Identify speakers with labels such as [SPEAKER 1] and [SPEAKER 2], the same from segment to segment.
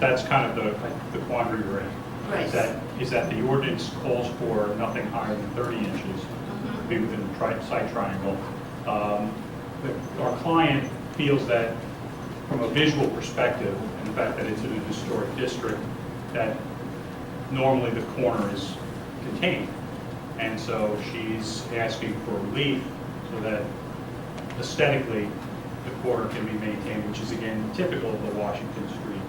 [SPEAKER 1] that's kind of the, the quandary we're in.
[SPEAKER 2] Right.
[SPEAKER 1] Is that, is that the ordinance calls for nothing higher than 30 inches,
[SPEAKER 2] Mhm.
[SPEAKER 1] be within the tri- site triangle. Um, the- Our client feels that from a visual perspective, and the fact that it's in a historic district, that normally the corner is contained. And so she's asking for relief so that aesthetically, the corner can be maintained, which is again typical of the Washington Street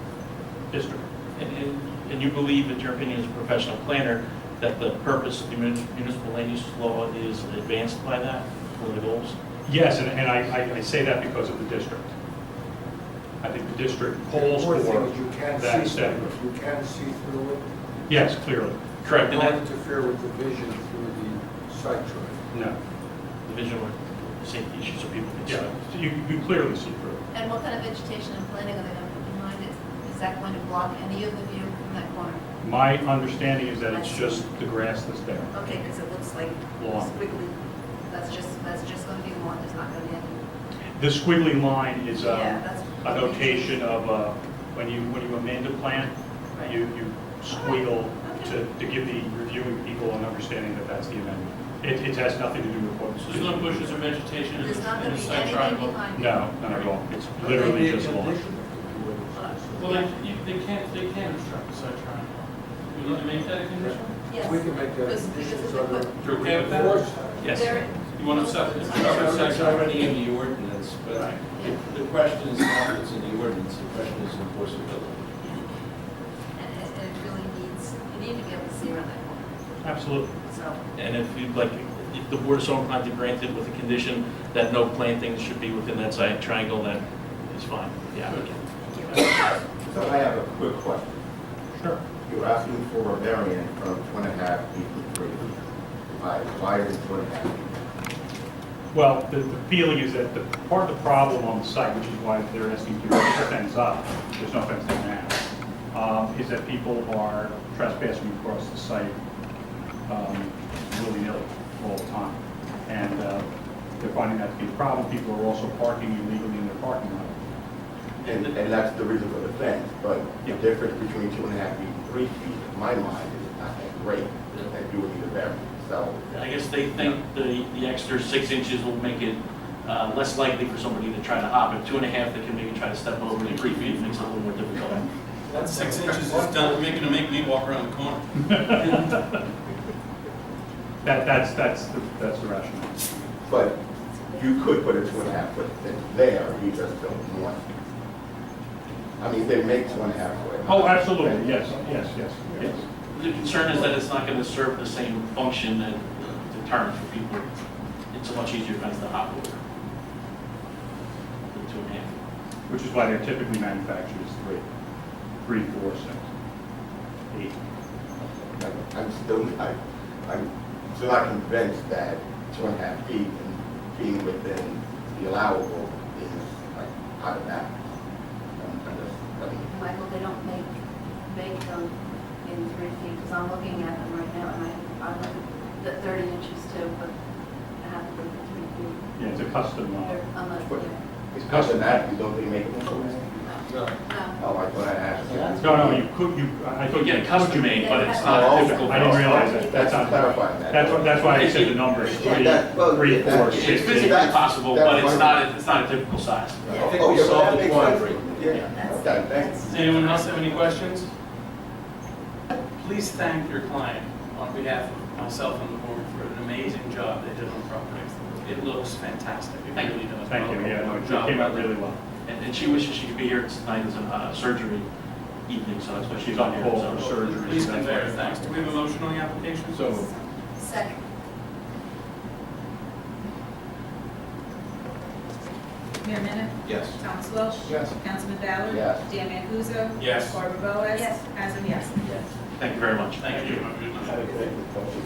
[SPEAKER 1] district.
[SPEAKER 3] And- And and you believe, in your opinion as a professional planner, that the purpose of the muni- municipal land use law is advanced by that, one of the goals?
[SPEAKER 1] Yes, and, and I, I- I say that because of the district. I think the district calls for
[SPEAKER 4] Important thing is you can't
[SPEAKER 1] that
[SPEAKER 4] see through
[SPEAKER 1] aesthetic.
[SPEAKER 4] it. You can't see through it.
[SPEAKER 1] Yes, clearly,
[SPEAKER 3] Correct,
[SPEAKER 4] You
[SPEAKER 3] and
[SPEAKER 4] don't
[SPEAKER 3] that,
[SPEAKER 4] interfere with the vision through the site triangle.
[SPEAKER 1] no,
[SPEAKER 3] the vision of safety issues of people can see.
[SPEAKER 1] yeah, so you, you clearly see through it.
[SPEAKER 2] And what kind of vegetation and planting are they going to put behind it? Is that going to block any of the view from that corner?
[SPEAKER 1] My understanding is that
[SPEAKER 2] I
[SPEAKER 1] it's
[SPEAKER 2] see.
[SPEAKER 1] just the grass that's there.
[SPEAKER 2] Okay, because it looks like
[SPEAKER 1] Lawn.
[SPEAKER 2] squiggly. That's just, that's just going to be lawn, there's not going to be any.
[SPEAKER 1] The squiggly line is
[SPEAKER 2] Yeah,
[SPEAKER 1] a,
[SPEAKER 2] that's-
[SPEAKER 1] a notation of, uh, when you, when you amend a plan, you, you squiggle to, to give the reviewing people an understanding that that's the amendment. It, it has nothing to do with what's.
[SPEAKER 5] So There's no bushes or vegetation in
[SPEAKER 2] There's not
[SPEAKER 5] the
[SPEAKER 2] going to
[SPEAKER 5] in the
[SPEAKER 2] be
[SPEAKER 5] site
[SPEAKER 2] anything
[SPEAKER 5] triangle?
[SPEAKER 2] behind it.
[SPEAKER 1] No, not at all, it's literally just lawn.
[SPEAKER 5] Well, they, you- they can't, they can't obstruct the site triangle. You want to make that a condition?
[SPEAKER 2] Yes.
[SPEAKER 4] We can make that a
[SPEAKER 2] Because-
[SPEAKER 4] condition
[SPEAKER 2] because
[SPEAKER 4] so
[SPEAKER 2] if they
[SPEAKER 4] that.
[SPEAKER 2] put-
[SPEAKER 5] You're okay with that?
[SPEAKER 4] Enforce that.
[SPEAKER 3] Yes.
[SPEAKER 2] There-
[SPEAKER 5] You want to set, it's
[SPEAKER 2] Yeah.
[SPEAKER 5] covered site
[SPEAKER 6] It's
[SPEAKER 5] triangle.
[SPEAKER 6] already in the ordinance, but
[SPEAKER 1] Right.
[SPEAKER 6] the- the question is not what's in the ordinance, the question is enforceability.
[SPEAKER 2] And it and it really needs, you need to be able to see around that corner,
[SPEAKER 1] Absolutely.
[SPEAKER 2] so.
[SPEAKER 3] And if you'd like, if the board is so inclined to grant it with a condition that no plantings should be within that side triangle, that is fine, yeah.
[SPEAKER 7] So I have a quick question.
[SPEAKER 1] Sure.
[SPEAKER 7] You're asking for a variance from two and a half feet to three. Why, why is it two and a half? feet?
[SPEAKER 1] Well, the, the feeling is that the, part of the problem on the site, which is why they're asking to put the fence up, there's no fence there now, um, is that people are trespassing across the site, um, willy-nilly all the time. And, uh, they're finding that to be a problem. People are also parking illegally in their parking lot.
[SPEAKER 7] And, and that's the reason for the fence, but the
[SPEAKER 1] Yeah.
[SPEAKER 7] difference between two and a half feet and three feet, in my mind, is not that great, that you would need a variance, so.
[SPEAKER 3] I guess they think the, the extra six inches will make it uh, less likely for somebody to try to hop. At two and a half, they can maybe try to step over the three feet, makes it a little more difficult.
[SPEAKER 5] That six inches is done, making to make me walk around the corner.
[SPEAKER 1] That, that's, that's, the- that's the rationale.
[SPEAKER 7] But you could put a two and a half foot fence there, you just don't want. it. I mean, they make two and a half foot.
[SPEAKER 1] Oh, absolutely, yes, yes, yes, yes.
[SPEAKER 3] The concern is that it's not going to serve the same function that deterrent for people. It's a much easier fence to hop over than two and a half.
[SPEAKER 1] Which is why they're typically manufactured as three, three, four, six, eight.
[SPEAKER 7] I'm still not, I'm still not convinced that two and a half feet and being within the allowable is like out of that. I'm- I'm just- I mean,
[SPEAKER 8] Michael, they don't make, make them in three feet, because I'm looking at them right now, and I, I'm looking at thirty inches too, but I have to look at three feet.
[SPEAKER 1] Yeah, it's a custom, uh,
[SPEAKER 8] They're- I'm not,
[SPEAKER 7] What?
[SPEAKER 8] yeah,
[SPEAKER 7] It's custom that, you don't think make it full.
[SPEAKER 8] no.
[SPEAKER 7] Oh, I thought I asked. you.
[SPEAKER 1] no, no, you could, you, I I
[SPEAKER 3] You
[SPEAKER 1] thought.
[SPEAKER 3] get it custom made, but it's
[SPEAKER 7] Oh,
[SPEAKER 3] not a
[SPEAKER 7] okay.
[SPEAKER 3] typical.
[SPEAKER 1] uh, I didn't
[SPEAKER 3] fence.
[SPEAKER 1] realize that, that's
[SPEAKER 7] That's
[SPEAKER 1] not,
[SPEAKER 7] clarifying that.
[SPEAKER 1] that's, what- that's why I said the numbers,
[SPEAKER 7] Yeah,
[SPEAKER 1] three,
[SPEAKER 7] that- well,
[SPEAKER 1] three,
[SPEAKER 7] yeah,
[SPEAKER 1] four,
[SPEAKER 7] that-
[SPEAKER 1] six.
[SPEAKER 3] It's physically
[SPEAKER 7] That's-
[SPEAKER 3] possible,
[SPEAKER 7] that's
[SPEAKER 3] but it's
[SPEAKER 7] fine.
[SPEAKER 3] not, it's not a typical size.
[SPEAKER 7] Oh,
[SPEAKER 6] I think
[SPEAKER 7] oh,
[SPEAKER 6] we
[SPEAKER 7] yeah, but
[SPEAKER 6] solved
[SPEAKER 7] that
[SPEAKER 6] the
[SPEAKER 7] makes
[SPEAKER 6] quandary.
[SPEAKER 7] sense. Yeah, okay, thanks.
[SPEAKER 5] Does anyone else have any questions? Please thank your client on behalf of myself and the board for an amazing job they did on the property. It looks fantastic. It
[SPEAKER 3] Thank you.
[SPEAKER 5] really does.
[SPEAKER 1] Thank you, yeah, no, it
[SPEAKER 5] Job
[SPEAKER 1] came out
[SPEAKER 5] well
[SPEAKER 1] really well.
[SPEAKER 3] And, and she wishes she could be here tonight as a uh, surgery evening, so that's why she's
[SPEAKER 1] She's
[SPEAKER 3] on
[SPEAKER 1] on
[SPEAKER 3] here.
[SPEAKER 1] hold
[SPEAKER 3] so-
[SPEAKER 1] for surgery.
[SPEAKER 5] Please
[SPEAKER 1] so that's
[SPEAKER 5] convey
[SPEAKER 1] why-
[SPEAKER 5] our thanks. Do we have a motion on the application?
[SPEAKER 6] So,
[SPEAKER 2] Second.
[SPEAKER 9] Mayor Minna?
[SPEAKER 6] yes.
[SPEAKER 9] Thomas Welsh?
[SPEAKER 4] Yes.
[SPEAKER 9] Councilman Ballard?
[SPEAKER 7] Yes.
[SPEAKER 9] Dan Mancuso?
[SPEAKER 5] Yes.
[SPEAKER 9] Barbara Boas?
[SPEAKER 2] Yes.
[SPEAKER 9] As a yes.
[SPEAKER 3] Thank you very much.
[SPEAKER 5] Thank you. Have a good night.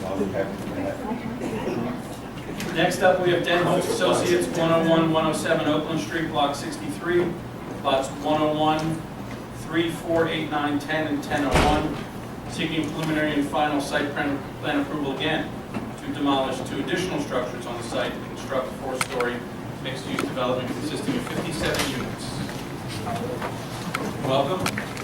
[SPEAKER 7] I'll be happy to have you.
[SPEAKER 5] Next up, we have Den Hope Associates, 101, 107 Oakland Street, Block 63, lots 101, 3, 4, 8, 9, 10, and 1001, seeking preliminary and final site plan plan approval again to demolish two additional structures on the site and construct a four-story mixed-use development consisting of 57 units. Welcome.